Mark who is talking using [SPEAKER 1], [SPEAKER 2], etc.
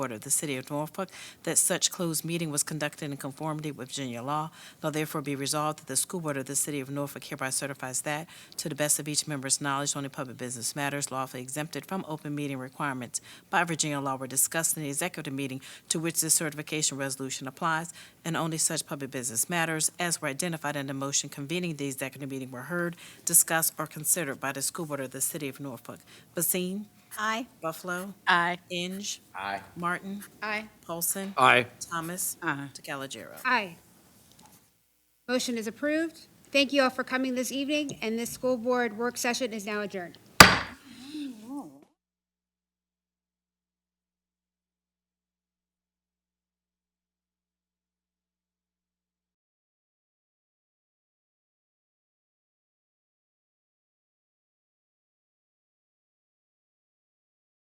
[SPEAKER 1] Board of the City of Norfolk that such closed meeting was conducted in conformity with Virginia law. Now therefore be resolved that the School Board of the City of Norfolk hereby certifies that, to the best of each member's knowledge, only public business matters lawfully exempted from open meeting requirements by Virginia law were discussed in the executive meeting to which this certification resolution applies, and only such public business matters as were identified in the motion convening the executive meeting were heard, discussed, or considered by the School Board of the City of Norfolk. Basine?
[SPEAKER 2] Aye.
[SPEAKER 1] Buffalo?
[SPEAKER 2] Aye.
[SPEAKER 1] Inge?
[SPEAKER 3] Aye.
[SPEAKER 1] Martin?
[SPEAKER 4] Aye.
[SPEAKER 1] Paulson?
[SPEAKER 3] Aye.
[SPEAKER 1] Thomas?
[SPEAKER 2] Aye.
[SPEAKER 1] DeCalagero.
[SPEAKER 4] Aye. Motion is approved. Thank you all for coming this evening, and this school board work session is now adjourned.